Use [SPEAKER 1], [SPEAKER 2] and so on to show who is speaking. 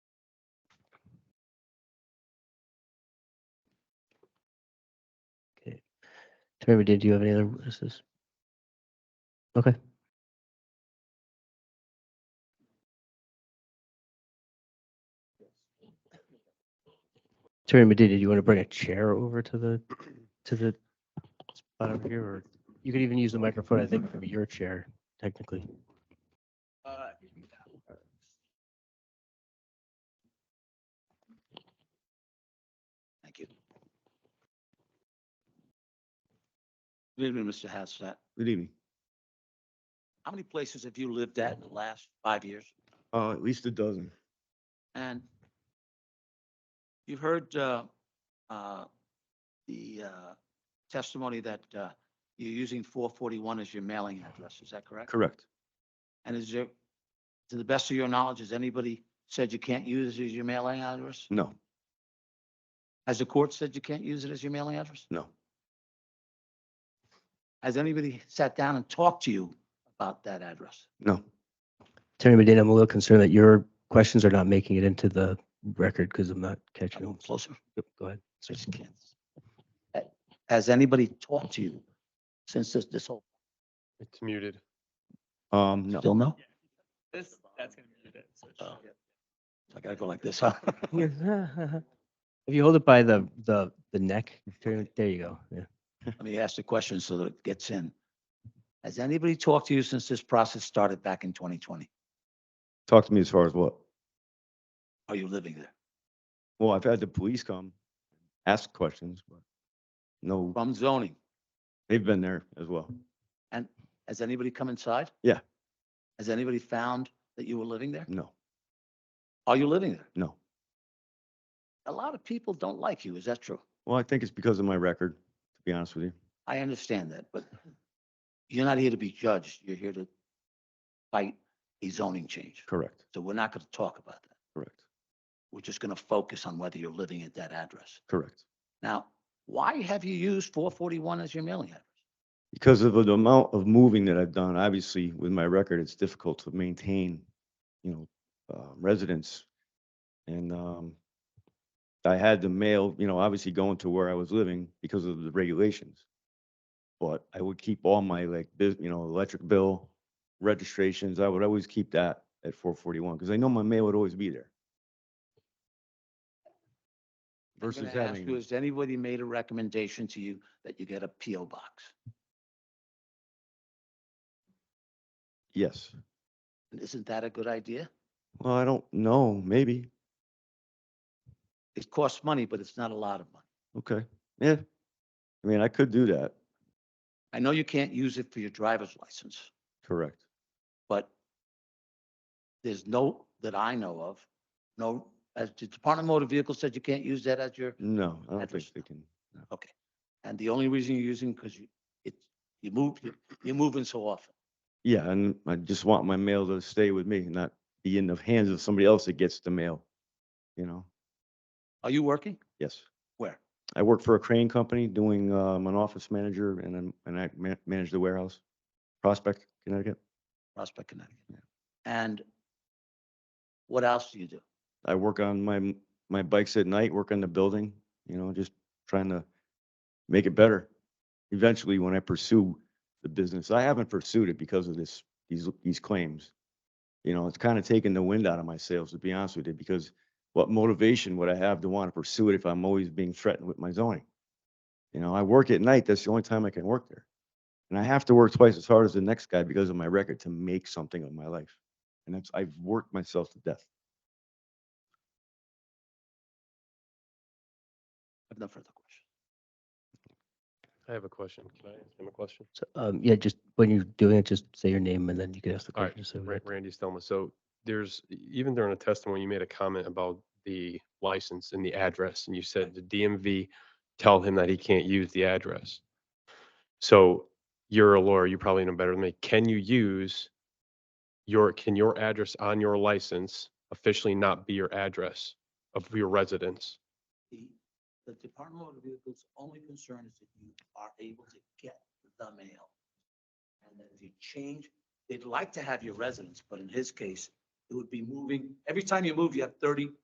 [SPEAKER 1] Terry, did you have any other witnesses? Okay. Terry, did you want to bring a chair over to the, to the spot over here, or you could even use the microphone, I think, from your chair, technically.
[SPEAKER 2] Uh, Thank you. Good evening, Mr. Hassett.
[SPEAKER 3] Good evening.
[SPEAKER 2] How many places have you lived at in the last five years?
[SPEAKER 3] Uh, at least a dozen.
[SPEAKER 2] And you heard uh, uh, the uh, testimony that uh, you're using 441 as your mailing address, is that correct?
[SPEAKER 3] Correct.
[SPEAKER 2] And is there, to the best of your knowledge, has anybody said you can't use it as your mailing address?
[SPEAKER 3] No,
[SPEAKER 2] Has the court said you can't use it as your mailing address?
[SPEAKER 3] no,
[SPEAKER 2] Has anybody sat down and talked to you about that address?
[SPEAKER 3] no.
[SPEAKER 1] Terry Medina, I'm a little concerned that your questions are not making it into the record because I'm not catching
[SPEAKER 2] Come
[SPEAKER 1] them.
[SPEAKER 2] on, closer.
[SPEAKER 1] Yep, Go ahead.
[SPEAKER 2] I just can't. Uh, Has anybody talked to you since this, this whole,
[SPEAKER 4] It's muted.
[SPEAKER 3] Um, no.
[SPEAKER 2] still no?
[SPEAKER 5] This, that's gonna be it. so it should-
[SPEAKER 2] Oh. I gotta go like this, huh?
[SPEAKER 1] If you hold it by the, the, the neck, Terry, there you go. Yeah.
[SPEAKER 2] Let me ask the question so that it gets in. Has anybody talked to you since this process started back in twenty twenty?
[SPEAKER 3] Talk to me as far as what?
[SPEAKER 2] Are you living there?
[SPEAKER 3] Well, I've had the police come, ask questions, but no,
[SPEAKER 2] From zoning,
[SPEAKER 3] they've been there as well.
[SPEAKER 2] has anybody come inside?
[SPEAKER 3] Yeah.
[SPEAKER 2] Has anybody found that you were living there?
[SPEAKER 3] No,
[SPEAKER 2] Are you living there?
[SPEAKER 3] no.
[SPEAKER 2] A lot of people don't like you, is that true?
[SPEAKER 3] Well, I think it's because of my record, to be honest with you.
[SPEAKER 2] I understand that, but you're not here to be judged. You're here to fight a zoning change.
[SPEAKER 3] Correct,
[SPEAKER 2] So we're not going to talk about that.
[SPEAKER 3] correct,
[SPEAKER 2] We're just going to focus on whether you're living at that address.
[SPEAKER 3] correct.
[SPEAKER 2] Now, why have you used 441 as your mailing address?
[SPEAKER 3] Because of the amount of moving that I've done, obviously with my record, it's difficult to maintain, you know, uh, residence. And, um, I had to mail, you know, obviously going to where I was living because of the regulations. But I would keep all my like, bus- you know, electric bill, registrations, I would always keep that at four forty-one, because I know my mail would always be there.
[SPEAKER 2] I'm
[SPEAKER 3] Versus
[SPEAKER 2] gonna ask you,
[SPEAKER 3] having,
[SPEAKER 2] Has anybody made a recommendation to you that you get a PO box?
[SPEAKER 3] yes,
[SPEAKER 2] And Isn't that a good idea?
[SPEAKER 3] well, I don't know, maybe,
[SPEAKER 2] It costs money, but it's not a lot of money.
[SPEAKER 3] okay, yeah. I mean, I could do that.
[SPEAKER 2] I know you can't use it for your driver's license.
[SPEAKER 3] Correct.
[SPEAKER 2] but there's no, that I know of, no, as the Department of Motor Vehicles said, you can't use that as your,
[SPEAKER 3] No, I don't
[SPEAKER 2] Address.
[SPEAKER 3] think they can.
[SPEAKER 2] and the only reason you're using, because you, it, you move, you're- you're moving so often.
[SPEAKER 3] Yeah, and I just want my mail to stay with me, not be in the hands of somebody else that gets the mail. You know,
[SPEAKER 2] Are you working?
[SPEAKER 3] yes.
[SPEAKER 2] Where?
[SPEAKER 3] I work for a crane company doing, um, an office manager and then, and I ma- manage the warehouse. Prospect, Connecticut.
[SPEAKER 2] Prospect, Connecticut. And what else do you do?
[SPEAKER 3] I work on my, m- my bikes at night, work on the building, you know, just trying to make it better. Eventually, when I pursue the business, I haven't pursued it because of this, these, these claims. You know, it's kind of taken the wind out of my sails, to be honest with you, because what motivation would I have to want to pursue it if I'm always being threatened with my zoning? You know, I work at night, that's the only time I can work there. And I have to work twice as hard as the next guy because of my record to make something of my life. And that's, I've worked myself to death.
[SPEAKER 2] I have no further questions.
[SPEAKER 4] I have a question. Can I ask him a question?
[SPEAKER 1] So, um, yeah, just when you're doing it, just say your name and then you can ask the
[SPEAKER 4] All right,
[SPEAKER 1] question. so we
[SPEAKER 4] Ra-
[SPEAKER 1] get-
[SPEAKER 4] Randy Stelma. So there's, e, even during the testimony, you made a comment about the license and the address, and you said the DMV tell him that he can't use the address. So you're a lawyer, you probably know better than me. Can you use your, can your address on your license officially not be your address of your residence?
[SPEAKER 2] The, the Department of Motor Vehicles' only concern is that you are able to get the mail. And that if you change, they'd like to have your residence, but in his case, it would be moving, every time you move, you have thirty